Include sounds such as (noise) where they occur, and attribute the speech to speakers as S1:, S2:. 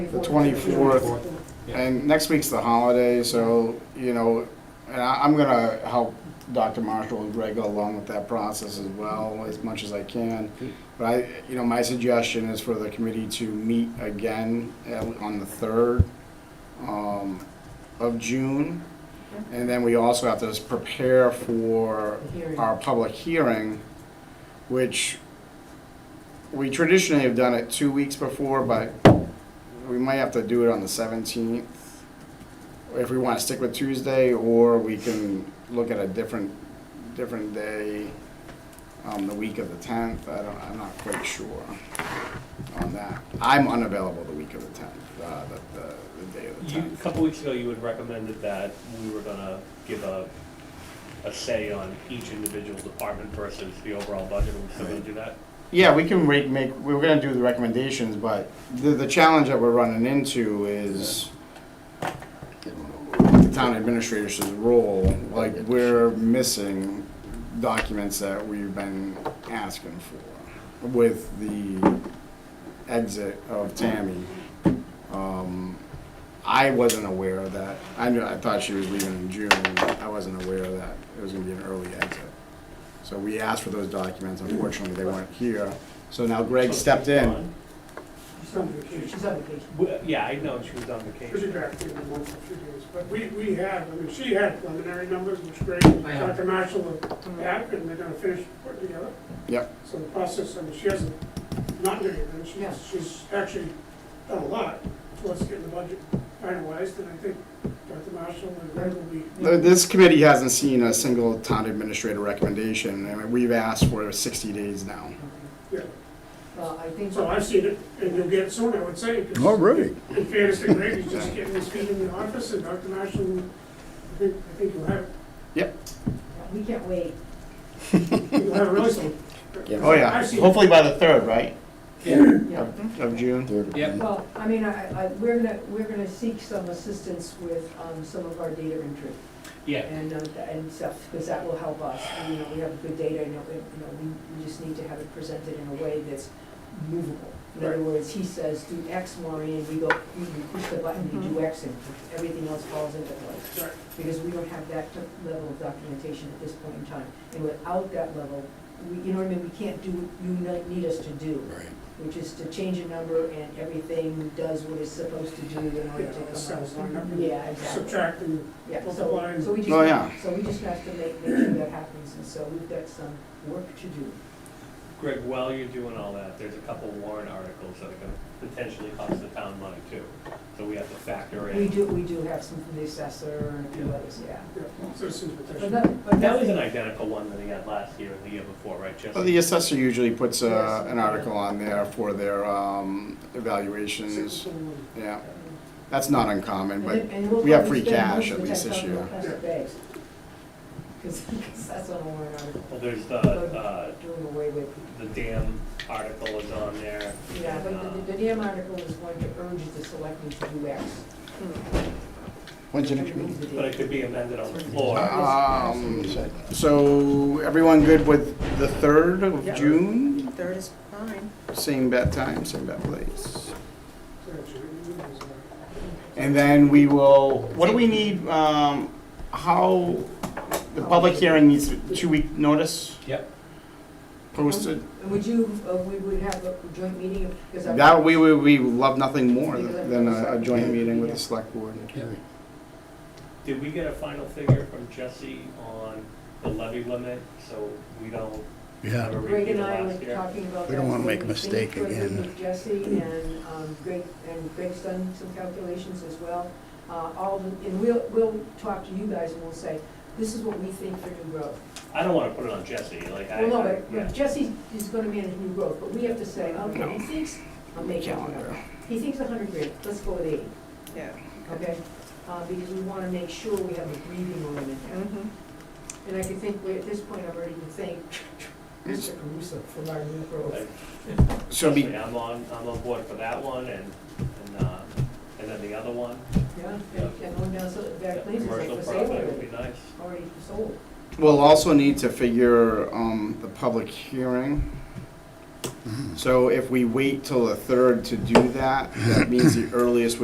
S1: the 24th, and next week's the holiday, so, you know, and I- I'm gonna help Dr. Marshall and Greg go along with that process as well, as much as I can. But I, you know, my suggestion is for the committee to meet again at- on the 3rd um, of June. And then we also have to prepare for
S2: Hearing.
S1: our public hearing, which we traditionally have done it two weeks before, but we might have to do it on the 17th if we want to stick with Tuesday, or we can look at a different, different day, um, the week of the 10th. I don't, I'm not quite sure on that. I'm unavailable the week of the 10th, uh, the, the, the day of the
S3: You, a
S1: 10th.
S3: couple weeks ago, you had recommended that we were gonna give a, a say on each individual department versus the overall budget, are we still gonna do that?
S1: Yeah, we can make, make, we were gonna do the recommendations, but the, the challenge that we're running into is the town administrator's role, like, we're missing documents that we've been asking for with the exit of Tammy. Um, I wasn't aware of that. I knew, I thought she was leaving in June. I wasn't aware of that. It was gonna be an early exit. So we asked for those documents. Unfortunately, they weren't here. So now Greg stepped in.
S4: She's on vacation.
S2: She's on vacation.
S3: We- Yeah, I know, she was on
S4: She'll be
S3: vacation.
S4: back in a month or two days, but we, we have, I mean, she had preliminary numbers, which is great.
S2: I have.
S4: Dr. Marshall had, and they're gonna finish putting together.
S1: Yep.
S4: So the process, I mean, she hasn't not done anything,
S2: Yeah.
S4: she's, she's actually done a lot towards getting the budget finalized, and I think Dr. Marshall and Greg will be.
S1: Th- This committee hasn't seen a single town administrator recommendation. I mean, we've asked for sixty days now.
S4: Yeah.
S2: Well, I think,
S4: So I've seen it, and you'll get it soon, I would say. 'cause
S5: Already?
S4: In fairness to Greg, he's just getting his feet in the office, and Dr. Marshall, I think, I think you'll have,
S1: Yep.
S2: we can't wait.
S4: you'll have really soon.
S1: Oh, yeah.
S4: I've seen it.
S1: Hopefully by the third, right?
S2: Yeah.
S1: Of Mm-hmm. of June.
S5: Yep.
S2: Well, I mean, I, I, we're gonna, we're gonna seek some assistance with, um, some of our data entry
S3: Yeah,
S2: and, uh, and stuff, because that will help us. And, you know, we have good data, and, you know, we, we just need to have it presented in a way that's movable. In other
S4: Right.
S2: words, he says, do X, Maureen, we go, we we push the button, we do X, and everything else falls into place.
S4: Right.
S2: because we don't have that t- level of documentation at this point in time. And without that level, we, you know what I mean, we can't do what you ne- need us to do,
S5: Right.
S2: which is to change a number and everything does what it's supposed to do in
S4: Yeah,
S2: order to
S4: all the
S2: come
S4: cells
S2: out.
S4: lined up and
S2: Yeah, exactly.
S4: Subtract and,
S2: Yeah, so,
S4: multiply.
S2: so we just,
S1: Oh, yeah.
S2: so we just have to make, make sure that happens, and so we've got some work to do.
S3: Greg, while you're doing all that, there's a couple warrant articles that are gonna potentially cost the town money too. So we have to factor
S2: We
S3: in.
S2: do, we do have some from the assessor and a few others, yeah.
S4: yeah, citizens
S2: But
S4: petition.
S2: that, but
S3: That was an
S2: nothing,
S3: identical one that he had last year and the year before, right, Jesse?
S1: Well, Oh, the assessor usually puts uh, an article on there for their um, evaluations.
S4: Citizen-
S1: Yeah, that's not uncommon,
S2: and
S1: but
S2: then- and we'll
S1: we have
S2: probably
S1: free
S2: spend most
S1: cash at
S2: of the
S1: least
S2: time
S1: this
S2: talking
S1: year.
S2: about plastic bags. Cause, (laughs) 'cause that's on a warrant article.
S3: Well, there's the, uh,
S2: doing away with,
S3: the dam article is on there.
S2: yeah, but
S3: Uh,
S2: the- the DM article is going to urge the selectmen to do X.
S5: When's the next meeting?
S2: Remove the
S3: But it
S2: dam.
S3: could be amended on the floor.
S1: Um, so everyone good with the third of
S2: Yeah.
S1: June?
S6: Third is fine.
S1: Same bat time, same bat place.
S4: citizen-
S1: And then we will, what do we need, um, how, the public hearing needs a two-week notice
S3: Yep,
S1: posted?
S2: And would you, uh, we would have a joint meeting, because I'm.
S1: That, we, we, we love nothing more than a a joint meeting with the select board.
S3: Did we get a final figure from Jesse on the levy limit, so we don't have a
S5: Yeah,
S2: Greg
S3: repeat of
S2: and I were
S3: last year?
S2: talking about that.
S5: We don't wanna make a
S2: so
S5: mistake
S2: we think
S5: again.
S2: with Jesse and um, Greg, and Greg's done some calculations as well. Uh, All, the- and we'll, we'll talk to you guys and we'll say, this is what we think for new growth.
S3: I don't wanna put it on Jesse, like I,
S2: Well, no,
S3: I- yeah.
S2: but Jesse is gonna manage new growth, but we have to say,
S1: No.
S2: okay, he thinks, I'm making one up. He thinks a hundred grand, let's go with eighty,
S6: Yeah.
S2: okay? Uh, because we wanna make sure we have a breathing room in there.
S6: Mm-hmm.
S2: And I can think, we- at this point, I've already been thanking Mr. Caruso for our new growth.
S1: So be,
S3: Jesse, I'm on, I'm on board for that one and, and, uh, and then the other one.
S2: Yeah, and and going down, so that place is
S3: Commercial
S2: like for sale
S3: property would
S2: already,
S3: be nice.
S2: already sold.
S1: we'll also need to figure, um, the public hearing So if we wait till the third to do that, that means the earliest would